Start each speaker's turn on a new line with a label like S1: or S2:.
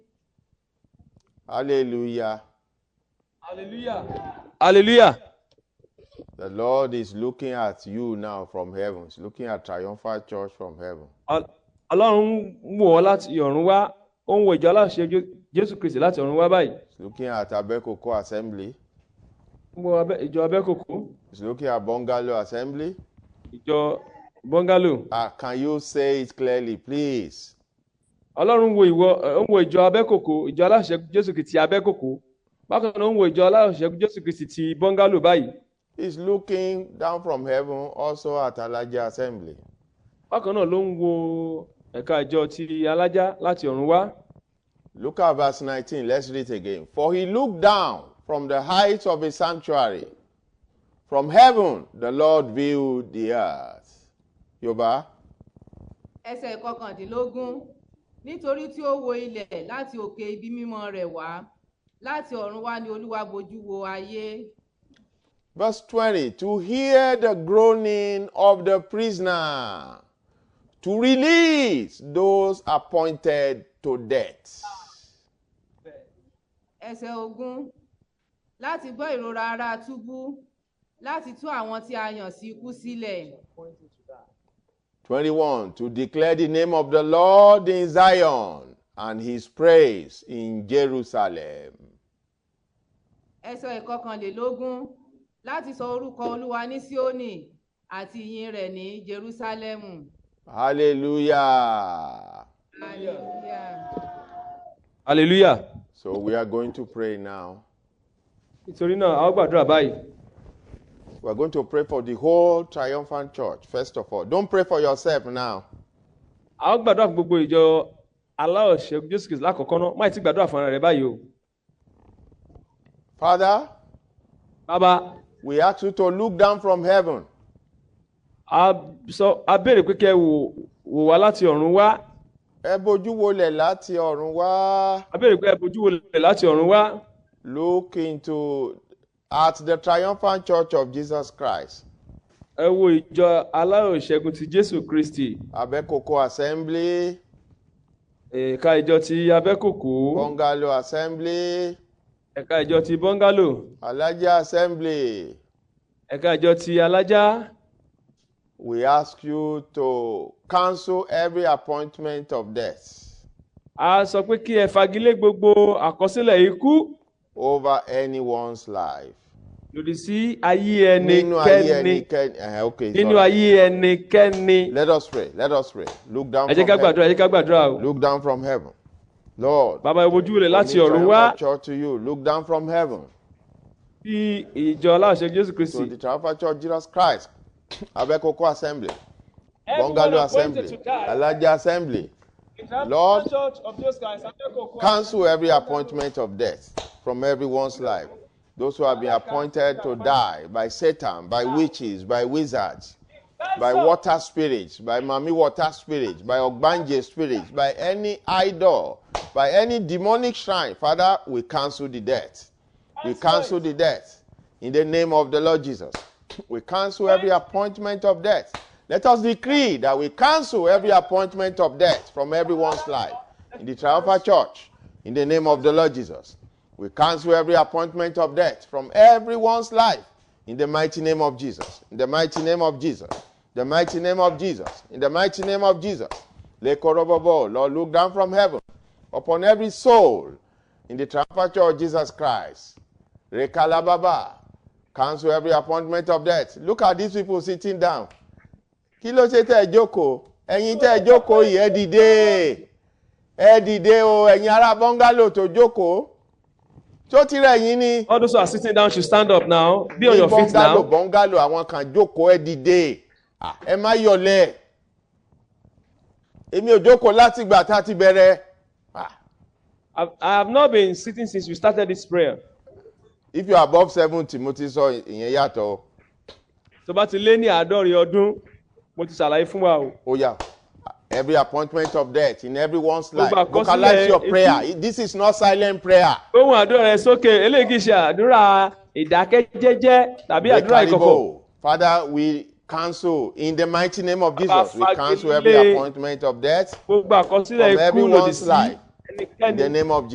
S1: Hallelujah.
S2: Hallelujah. Hallelujah.
S1: The Lord is looking at you now from heaven. He's looking at Triumphal Church from heaven.
S2: Al- Ọlọ́run ń wò ọ́ láti ọ̀run wá, ó ń wo ìjọ aláṣẹ Jé- Jésù Kristì láti ọ̀run wá báyìí.
S1: He's looking at Abekoko Assembly.
S2: Ó ń wo Abẹ́- ìjọ Abẹ́kòkó,
S1: He's looking at Bungalow Assembly.
S2: ìjọ Bọ́ngálò.
S1: Ah, can you say it clearly, please?
S2: Ọlọ́run ń wo ìwọ, ẹ̀, ó ń wo ìjọ Abẹ́kòkó, ìjọ aláṣẹ Jésù Kristì Abẹ́kòkó. Bákan náà ó ń wo ìjọ aláṣẹ Jésù Kristì ti Bọ́ngálò báyìí.
S1: He's looking down from heaven also at Alaja Assembly.
S2: Bákan náà ló ń wo ẹ̀ka ìjọ ti Alájá láti ọ̀run wá.
S1: Look at verse 19. Let's read it again. For he looked down from the heights of his sanctuary. From heaven, the Lord viewed the earth. Yoba,
S3: ẹsẹ̀ kọkàndínlógún nítorí tí ó wo ilẹ̀ láti òkè ibi mímọ́ rẹ̀ wá láti ọ̀run wá ni olúwa bojú wo ayé
S1: verse 20 To hear the groaning of the prisoner, to release those appointed to death.
S3: ẹsẹ̀ ogún láti gbọ́ ìrora ara túbú láti tú àwọn tí a yàn sí ikú sílẹ̀
S1: 21 To declare the name of the Lord in Zion and his praise in Jerusalem.
S3: ẹsẹ̀ ìkọkànlélógún láti sọ orúkọ olúwa ní síónì àti ìyìn rẹ̀ ní jerúsálẹ́mù.
S1: Hallelujah.
S3: hallelujah.
S2: Hallelujah.
S1: So we are going to pray now.
S2: Nítorí náà, a ó gbàdúrà báyìí.
S1: We are going to pray for the whole triumphant church, first of all. Don't pray for yourself now.
S2: a ó gbàdúrà fún gbogbo ìjọ aláọ̀ṣẹ́ jésù kristu lákọ̀ọ́kọ́ náà má ì tí gbàdúrà fún ara rẹ báyìí o
S1: Father,
S2: bàbá
S1: we ask you to look down from heaven
S2: a sọ a béèrè pé kẹ́ ẹ wò wò wá láti ọ̀run wá
S1: ẹ bójú wolẹ̀ láti ọ̀run wá
S2: a béèrè pé ẹ bójú wòlẹ̀ láti ọ̀run wá
S1: look into at the triumphant church of jesus christ
S2: ẹ wo ìjọ aláọ̀ṣẹ́gun ti jésù kristi
S1: abẹ́kòkò assembly
S2: ẹ̀ka ìjọ ti abẹ́kòkó
S1: bungalow assembly
S2: ẹ̀ka ìjọ ti bọ́ngálò
S1: alaja assembly
S2: ẹ̀ka ìjọ ti alájá
S1: we ask you to cancel every appointment of death
S2: a sọ pé kí ẹ fagilé gbogbo àkọsílẹ̀ ikú
S1: over anyone's life.
S2: lòdì sí ayé
S1: nínú ayé
S2: ẹnikẹ́ni
S1: ẹnikẹ́ni ẹ̀hẹ́, okay
S2: nínú
S1: sorry.
S2: ayé ẹnikẹ́ni
S1: let us pray let us pray look down
S2: ẹ jẹ́
S1: from
S2: ká
S1: heaven
S2: gbàdúrà ẹ jẹ́ ká gbàdúrà o.
S1: look down from heaven lord
S2: bàbá ìbojú rẹ̀ láti
S1: we
S2: ọ̀run
S1: lift
S2: wá
S1: our church to you look down from heaven
S2: sí ìjọ aláṣẹ jésù kristi.
S1: to the triumphal church jesus christ abekoko assembly
S2: Everyone
S1: bungalow
S2: appointed
S1: assembly
S2: to die.
S1: alaja assembly Lord, cancel every appointment of death from everyone's life. Those who have been appointed to die by Satan, by
S2: Ah.
S1: witches, by wizards, by water spirits, by mami water spirits, by ogbanje spirits, by any idol, by any demonic shrine. Father, we cancel the death. We cancel the death in the name of the Lord Jesus. We cancel every appointment of death. Let us decree that we cancel every appointment of death from everyone's life in the Triumphal Church in the name of the Lord Jesus. We cancel every appointment of death from everyone's life in the mighty name of Jesus. In the mighty name of Jesus. The mighty name of Jesus. In the mighty name of Jesus. Lekorobobo, Lord, look down from heaven upon every soul in the triumphal church of Jesus Christ. Rekalababa, cancel every appointment of death. Look at these people sitting down. Kí ló ṣe tẹ́ ẹ jókòó? Ẹ̀yin tẹ́ ẹ jókòó yìí, ẹ dìde. Ẹ dìde o, ẹ̀yin ará bọ́ngálò tó jókòó. Tó ti rẹ̀ yín ni.
S2: all those who are sitting down should stand up now be on
S1: Ní
S2: your feet
S1: bọ́ngálò
S2: now
S1: bọ́ngálò àwọn kan jókòó ẹ dìde. Ah, Ẹ má yọ̀lẹ̀. Èmi ò jókòó láti ìgbà tá a ti bẹ̀rẹ̀. Ah,
S2: I, i have not been sitting since we started this prayer
S1: If you are above seventy, mo ti sọ ìyẹn yàtọ̀ o.
S2: tó bá ti lé ní àádọ́rin ọdún mo ti ṣàlàyé fún wa o.
S1: Oh yeah. Every appointment of death in everyone's life.
S2: Gbogbo
S1: Vocalize
S2: àkọsílẹ̀
S1: your
S2: ikú.
S1: prayer. This is not silent prayer.
S2: ohun àdúrà rẹ sókè eléyìí kì í ṣe àdúrà ìdákẹ́jẹ́jẹ́ tàbí àdúrà ìkọ̀kọ̀
S1: Rekaribó. Father, we cancel in the mighty name of
S2: Baba,
S1: Jesus. We cancel every
S2: fagilé
S1: appointment of death
S2: gbogbo àkọsílẹ̀
S1: from
S2: ikú lòdì
S1: everyone's
S2: sí
S1: life. In the
S2: ẹnikẹ́ni
S1: name of